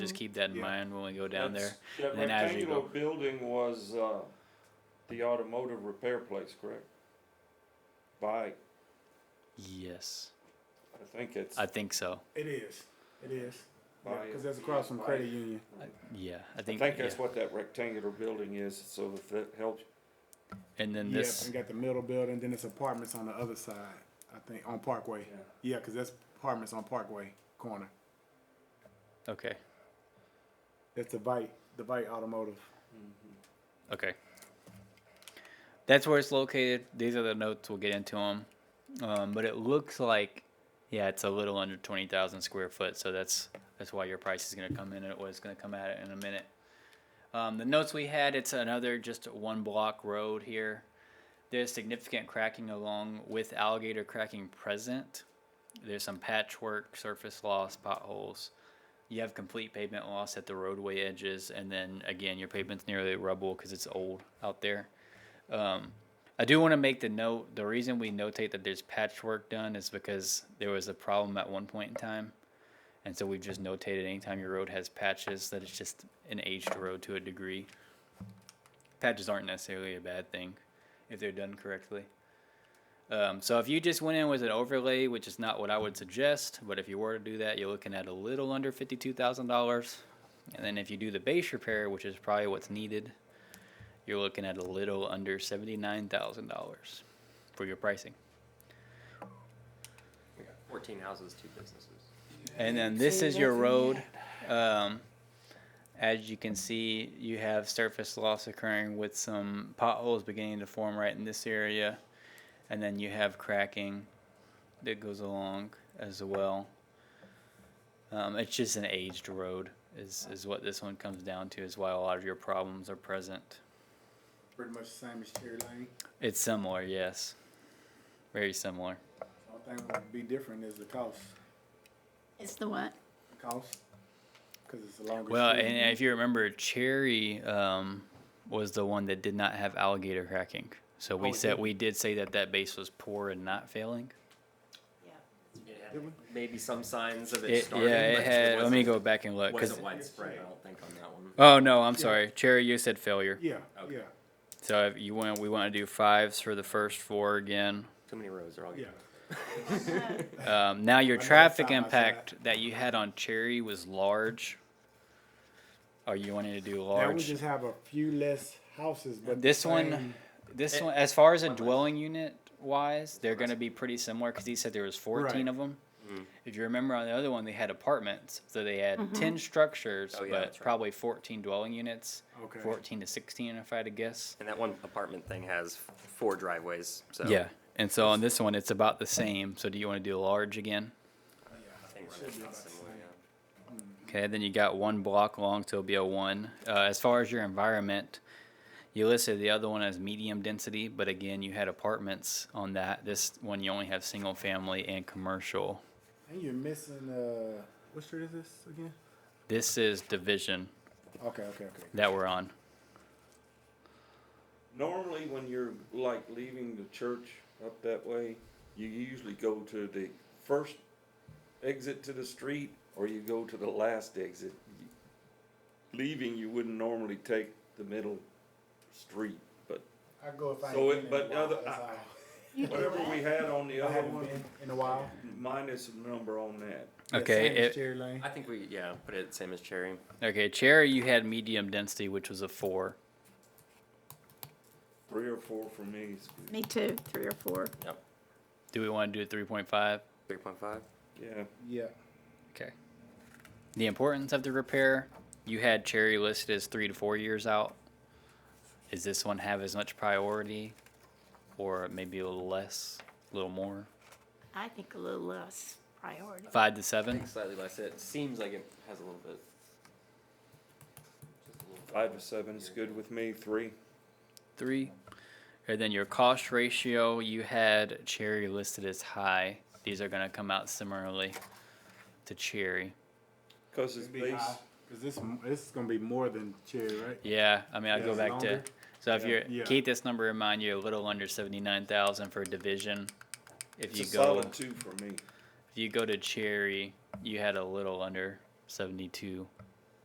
Just keep that in Yeah. mind when we go down there. That's- and That then as you rectangular go- building was, uh, the automotive repair place, correct? By, Yes, I think it's, I think so. It is. It is. Buy it. Because that's across from Credit Union. Yeah, I I think. think yeah. that's what that rectangular building is, so if that helps. And then Yep, this. and got the middle building, then it's apartments on the other side, I think, on Parkway. Yeah. Yeah, because that's apartments on Parkway corner. Okay. That's the Vite, the Vite Automotive. Okay. That's where it's located. These are the notes. We'll get into them. Um, but it looks like, yeah, it's a little under twenty thousand square foot. So that's that's why your price is going to come in at what it's going to come at in a minute. Um, the notes we had. It's another just one block road here. There's significant cracking along with alligator cracking present. There's some patchwork, surface loss, potholes. You have complete pavement loss at the roadway edges, and then again, your pavement's nearly rubble because it's old out there. Um, I do want to make the note the reason we notate that there's patchwork done is because there was a problem at one point in time. And so we've just notated anytime your road has patches that it's just an aged road to a degree. Patches aren't necessarily a bad thing if they're done correctly. Um, so if you just went in with an overlay, which is not what I would suggest, but if you were to do that, you're looking at a little under fifty-two thousand dollars. And then if you do the base repair, which is probably what's needed, you're looking at a little under seventy-nine thousand dollars for your pricing. Fourteen houses, two businesses. And then this is your road. Um, as you can see, you have surface loss occurring with some potholes beginning to form right in this area. And then you have cracking that goes along as well. Um, it's just an aged road is, is what this one comes down to is why a lot of your problems are present. Pretty much the same as Cherry Lane. It's similar, yes. Very similar. Only thing that would be different is the cost. It's the what? Cost? Because it's a longer. Well, street. and if you remember, Cherry um, was the one that did not have alligator cracking. So we Oh, it said didn't. we did say that that base was poor and not failing. Maybe some signs of it It, starting. yeah, but it had. Let me wasn't- go back and look. 'cause- Wasn't widespread, I don't think on that one. oh no, I'm sorry, Cherry. You said failure. Yeah, Okay. yeah, So if you want, we want to do fives for the first four again. Too many rows are all yeah. good. Uh, Um, now your know it's traffic side by impact that you had on Cherry was large. Are you wanting to do large? That would just have a few less houses, but. This the one, same- this Eh, one, as far as a one less. dwelling unit wise, they're going to be pretty similar because he said there was fourteen Right. of them. Mm. If you remember on the other one, they had apartments, so they had ten structures, Oh, yeah, but that's right. probably fourteen dwelling units, Okay. fourteen to sixteen, if I had to guess. And that one apartment thing has four driveways, so. Yeah, and so on this one, it's about the same. So do you want to do large again? I think we're about similar, yeah. Okay, then you got one block long, so it'll be a one. Uh, as far as your environment, you listed the other one as medium density, but again, you had apartments on that. This one, you only have single family and commercial. And you're missing, uh, what street is this again? This is division Okay, okay, okay. that we're on. Normally, when you're like leaving the church up that way, you usually go to the first exit to the street or you go to the last exit. Leaving, you wouldn't normally take the middle street, but I go if I. So ain't it- been in a but while, other- that's I- all. whatever we had on the I other haven't one, been in a while. minus a number on that. Yeah, Okay, same as it- Cherry Lane. I think we, yeah, put it same as Cherry. Okay, Cherry, you had medium density, which was a four. Three or four for me is good. Me too, three or four. Yep, Do we want to do a 3.5? three point five. Yeah. Yeah. Okay. The importance of the repair, you had Cherry listed as three to four years out. Does this one have as much priority or maybe a little less, a little more? I think a little less priority. Five to I seven? think slightly less. It seems like it has a little bit. just a little bit Five more to seven is here. good with me, three. Three. And then your cost ratio, you had Cherry listed as high. These are going to come out similarly to Cherry. Cause it's Be high, based, Cause this, this is gonna be more than Cherry, right? Yeah, I mean, I Yeah, go it's back longer. to. So if Yeah. you're Yeah. keep this number in mind, you're a little under seventy nine thousand for division. If it's you a go, solid two for me. if you go to Cherry, you had a little under seventy two.